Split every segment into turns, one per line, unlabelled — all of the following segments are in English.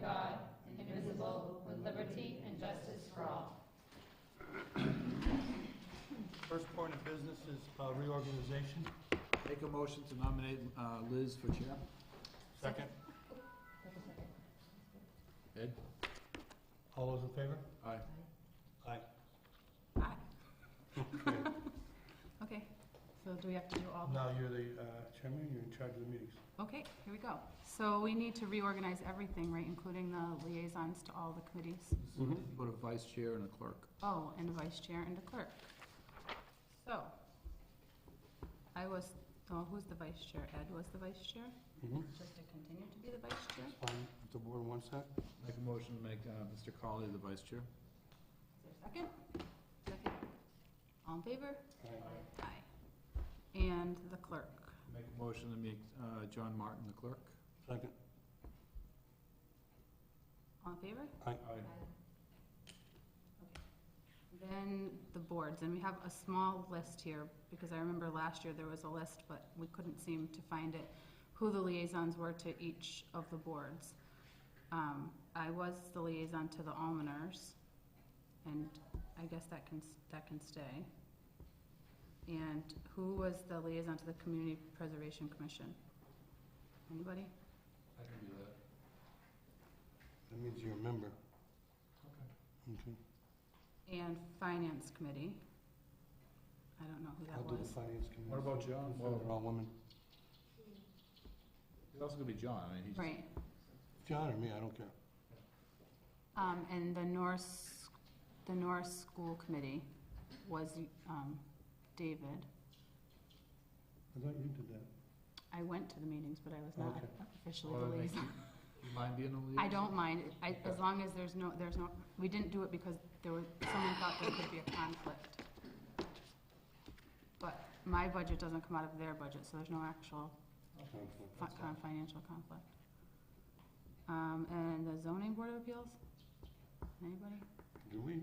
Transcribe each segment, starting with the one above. God, indivisible, with liberty and justice for all.
First point of business is uh, reorganization.
Make a motion to nominate uh, Liz for chair.
Second.
Ed?
All those in favor?
Aye.
Aye.
Aye. Okay, so do we have to do all?
Now you're the uh, chairman, you're in charge of the meetings.
Okay, here we go. So we need to reorganize everything, right, including the liaisons to all the committees?
Put a vice chair and a clerk.
Oh, and a vice chair and a clerk. So, I was, oh, who's the vice chair? Ed was the vice chair?
Mhm.
Just to continue to be the vice chair? Is
Fine, if the board wants that.
Make a motion to make uh, Mr. Colley the vice chair.
there a second? Second. All in favor?
Aye.
Aye. And the clerk.
Make a motion to make uh, John Martin the clerk.
Second.
All in favor?
Aye.
Then the boards, and we have a small list here, because I remember last year there was a list, but we couldn't seem to find it, who the liaisons were to each of the boards. Um, I was the liaison to the almoners, and I guess that can, that can stay. And who was the liaison to the Community Preservation Commission? Anybody?
I can do that.
That means you're a member. Okay.
And Finance Committee. I don't know who that
I'll do the
was.
finance committee.
What about John?
Well, They're all women.
It's also gonna be John, I mean, he's.
Right.
John or me, I don't care.
Um, and the Norse, the Norse School Committee was, um, David.
I thought you did that.
I went to the meetings, but I was not
Okay.
officially
Well,
the
then make
liaison.
You mind being a liaison?
I don't mind, I, as
Okay.
long as there's no, there's no, we didn't do it because there was, someone thought there could be a conflict. But my budget doesn't come out of their budget, so there's no actual
Conflict.
fi- kind of financial conflict. Um, and the zoning board of appeals? Anybody?
Do we,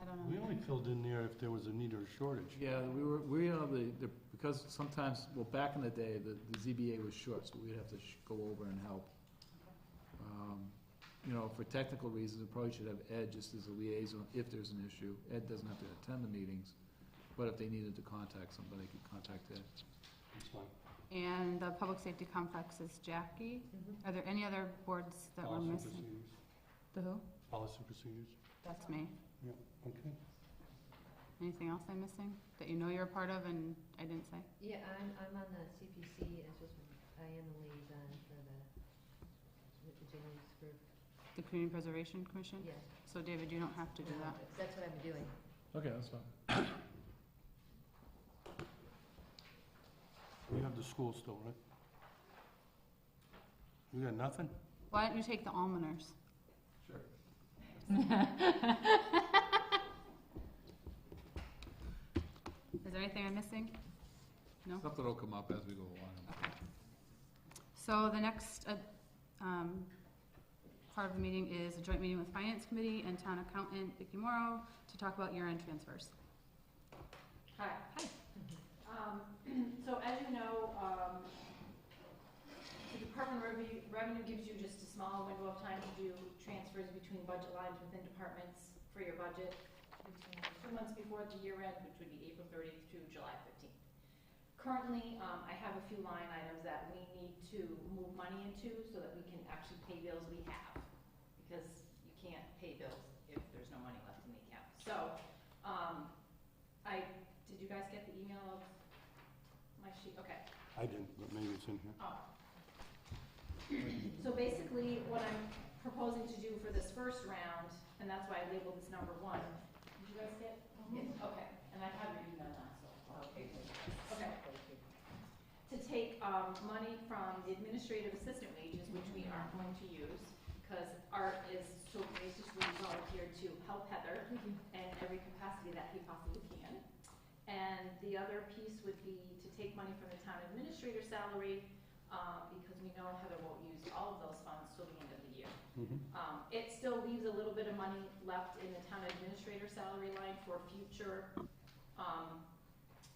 I don't know.
we only filled in there if there was a need or a shortage.
Yeah, we were, we are the, the- because sometimes, well, back in the day, the, the ZBA was short, so we'd have to sh- go over and help. Um, You know, for technical reasons, we probably should have Ed just as a liaison if there's an issue. Ed doesn't have to attend the meetings, but if they needed to contact somebody, they could contact Ed.
It's fine.
And the public safety complex is Jackie. Are there any other boards that we're
Policy and
missing?
procedures.
The who?
Policy and procedures,
That's me.
okay.
Anything else I'm missing that you know you're a part of and I didn't say?
Yeah, I'm, I'm on the CPC, as was, I am the liaison for the, the James group,
The Community Preservation Commission?
yes.
So David, you don't have to Hmm. do that.
That's what I'm doing.
Okay, that's fine.
You have the school still, right? You got nothing?
Why don't you take the almoners?
Sure.
Is there anything I'm missing? No?
Something will come up as we go along.
Okay. So the next, uh, um, part of the meeting is a joint meeting with Finance Committee and Town Accountant Vicky Morrow to talk about year-end transfers.
Hi.
Hi.
Um, so as you know, um, the Department of Revenue- Revenue gives you just a small window of time to do transfers between budget lines within departments for your budget two months before the year end, which would be April thirtieth through July fifteenth. Currently, um, I have a few line items that we need to move money into so that we can actually pay bills we have. Because you can't pay bills if there's no money left in the account. So, um, I, did you guys get the email of my sheet? Okay.
I didn't, but maybe it's in here.
Oh. So basically, what I'm proposing to do for this first round, and that's why I labeled this number one, did you guys get? Yes. Okay, and I have your email now, so. Okay. Okay. To take, um, money from the administrative assistant wages, which we aren't going to use, because Art is so graciously volunteered to help Heather in every capacity that he possibly can. And the other piece would be to take money from the town administrator salary um, because we know Heather won't use all of those funds till the end of the year.
Mhm.
Um, It still leaves a little bit of money left in the town administrator salary line for future um,